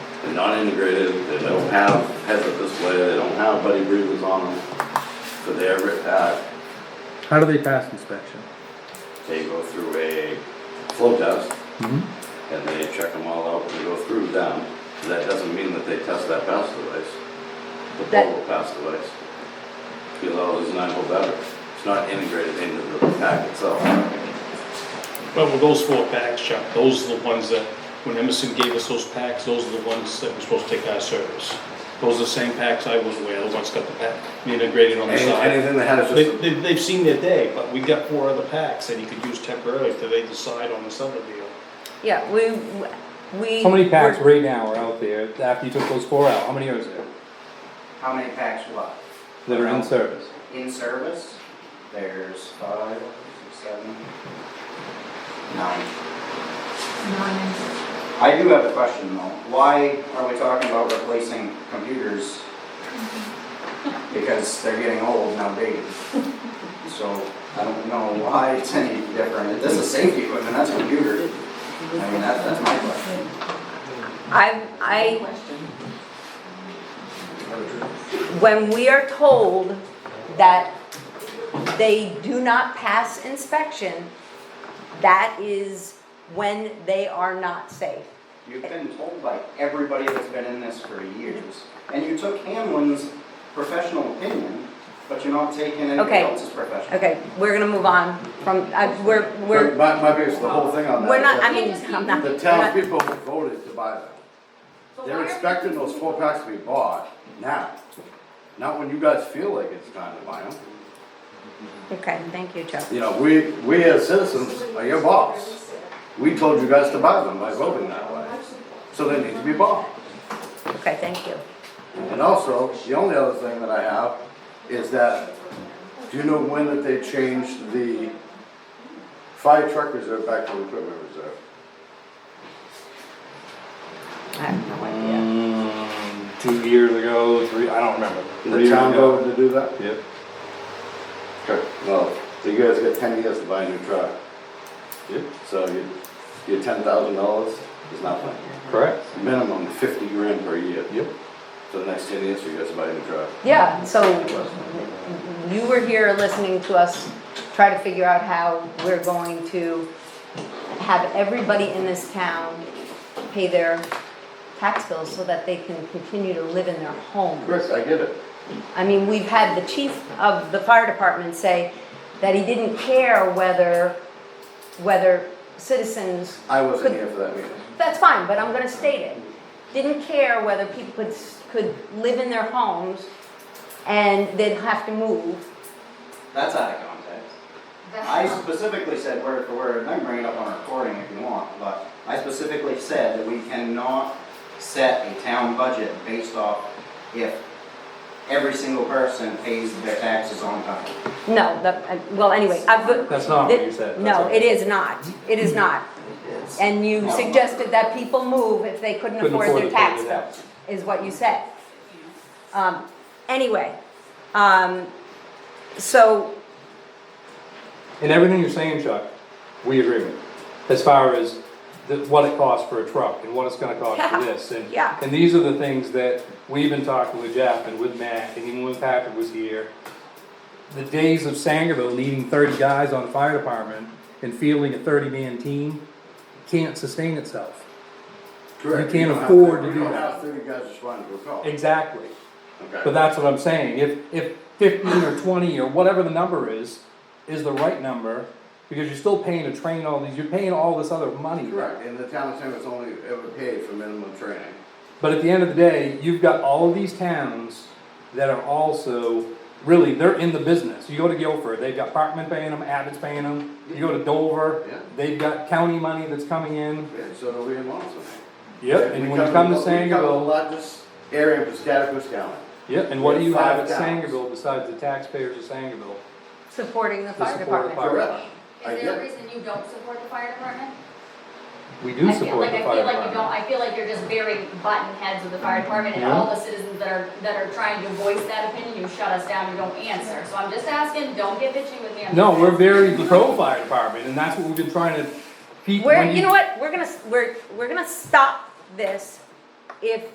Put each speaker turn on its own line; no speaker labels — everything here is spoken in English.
They're not integrated, they don't have heads up display, they don't have buddy breathers on them. So they're, ri- uh,
How do they pass inspection?
they go through a flow test
Mhm.
and they check them all out and they go through them. That doesn't mean that they test that pass device, the
That-
portable pass device. Because all is not go better. It's not integrated into the pack itself.
But with those four packs, Chuck, those are the ones that, when Emerson gave us those packs, those are the ones that were supposed to take our service. Those are the same packs I was aware, the ones got the pack, integrated on the
Any-
side.
Anything that has
They,
just,
they, they've seen their day, but we've got four other packs that you could use temporarily till they decide on this other deal.
Yeah, we, we.
How many packs
we're-
right now are out there after you took those four out? How many are there
How many packs what?
that are in service?
In service, there's five, six, seven, nine. I do have a question though. Why are we talking about replacing computers? Because they're getting old and outdated. So I don't know why it's any different. This is safety equipment, that's a computer. I mean, that, that's my question.
I, I, when we are told that they do not pass inspection, that is when they are not safe.
You've been told by everybody that's been in this for years. And you took Hamlin's professional opinion, but you're not taking anybody
Okay.
else's professional.
Okay, we're gonna move on from, uh, we're,
But
we're,
my, my biggest, the whole thing on that.
we're
is
not,
that
I mean, I'm not.
The
we're not-
townspeople voted to buy them. They're expecting those four packs to be bought now, not when you guys feel like it's time to buy them.
Okay, thank you, Chuck.
You know, we, we as citizens are your boss. We told you guys to buy them by voting that way, so they need to be bought.
Okay, thank you.
And also, the only other thing that I have is that, do you know when that they changed the fire truck reserve back to equipment reserve?
I have no idea.
Mm, Two years ago, three, I don't remember. Three
The
years
town
ago.
voted to do that?
Yep.
Okay, well, so you guys got ten years to buy a new truck,
Yep.
so you, your ten thousand dollars is nothing.
Correct.
Minimum fifty grand per year.
Yep.
So the next ten years, you guys buy a new truck.
Yeah, so you were here listening to us try to figure out how we're going to have everybody in this town pay their tax bills so that they can continue to live in their home.
Chris, I get it.
I mean, we've had the chief of the fire department say that he didn't care whether, whether citizens
I wasn't here for that meeting.
that's fine, but I'm gonna state it. Didn't care whether people could, s- could live in their homes and they'd have to move.
That's out of context. I specifically said word for word, and I can bring it up on a recording if you want, but I specifically said that we cannot set a town budget based off if every single person pays their taxes on time.
No, that, I- well, anyway, I've.
That's not what you said, that's Mm-hmm.
No,
all.
it is not, it is not.
It's-
And you
No.
suggested that people move if they couldn't
Couldn't
afford
afford
their
to pay
tax
the
bill,
tax.
is what you said. Um, anyway, um, so,
And everything you're saying, Chuck, we agree with, as far as the, what it costs for a truck and what it's gonna cost for
Yeah,
this, and.
yeah.
And these are the things that we've been talking with Jeff and with Matt, and even when Patrick was here. The days of Sangerville needing thirty guys on the fire department and fielding a thirty-man team can't sustain itself.
Correct.
can't
don't have
afford
thirty-
to
you
do
don't
that.
have thirty guys just running to a call.
Exactly.
Okay.
But that's what I'm saying, if, if fifteen or twenty or whatever the number is, is the right number, because you're still paying to train all these, you're paying all this other money.
Correct, and the town of Sangerville's only ever paid for minimum training.
But at the end of the day, you've got all of these towns that are also, really, they're in the business. You go to Guilford, they've got Parkman paying them, Abbott's paying them. You go to
Yeah.
Dover, they've got county money that's coming in.
Yeah, so do we in Monson.
Yep,
We
and when you come to
we cover the
Sangerville,
largest area of Piscataquis County.
yep, and what do you have
Five
at
towns.
Sangerville besides the taxpayers of Sangerville?
supporting the
To
fire
support the
department.
fire-
Correct. I
Is there
get
a
it.
reason you don't support the fire department?
We
I
do
feel
support
like,
the
I
fire
feel like you don't,
department.
I feel like you're just very button heads with the fire department and
Yeah.
all the citizens that are, that are trying to voice that opinion, you shut us down, you don't answer. So I'm just asking, don't get bitchy with me. I'm
No,
just
we're
asking.
very pro fire department, and that's what we've been trying to. Pete,
We're,
when
you know what, we're gonna, we're, we're gonna stop this if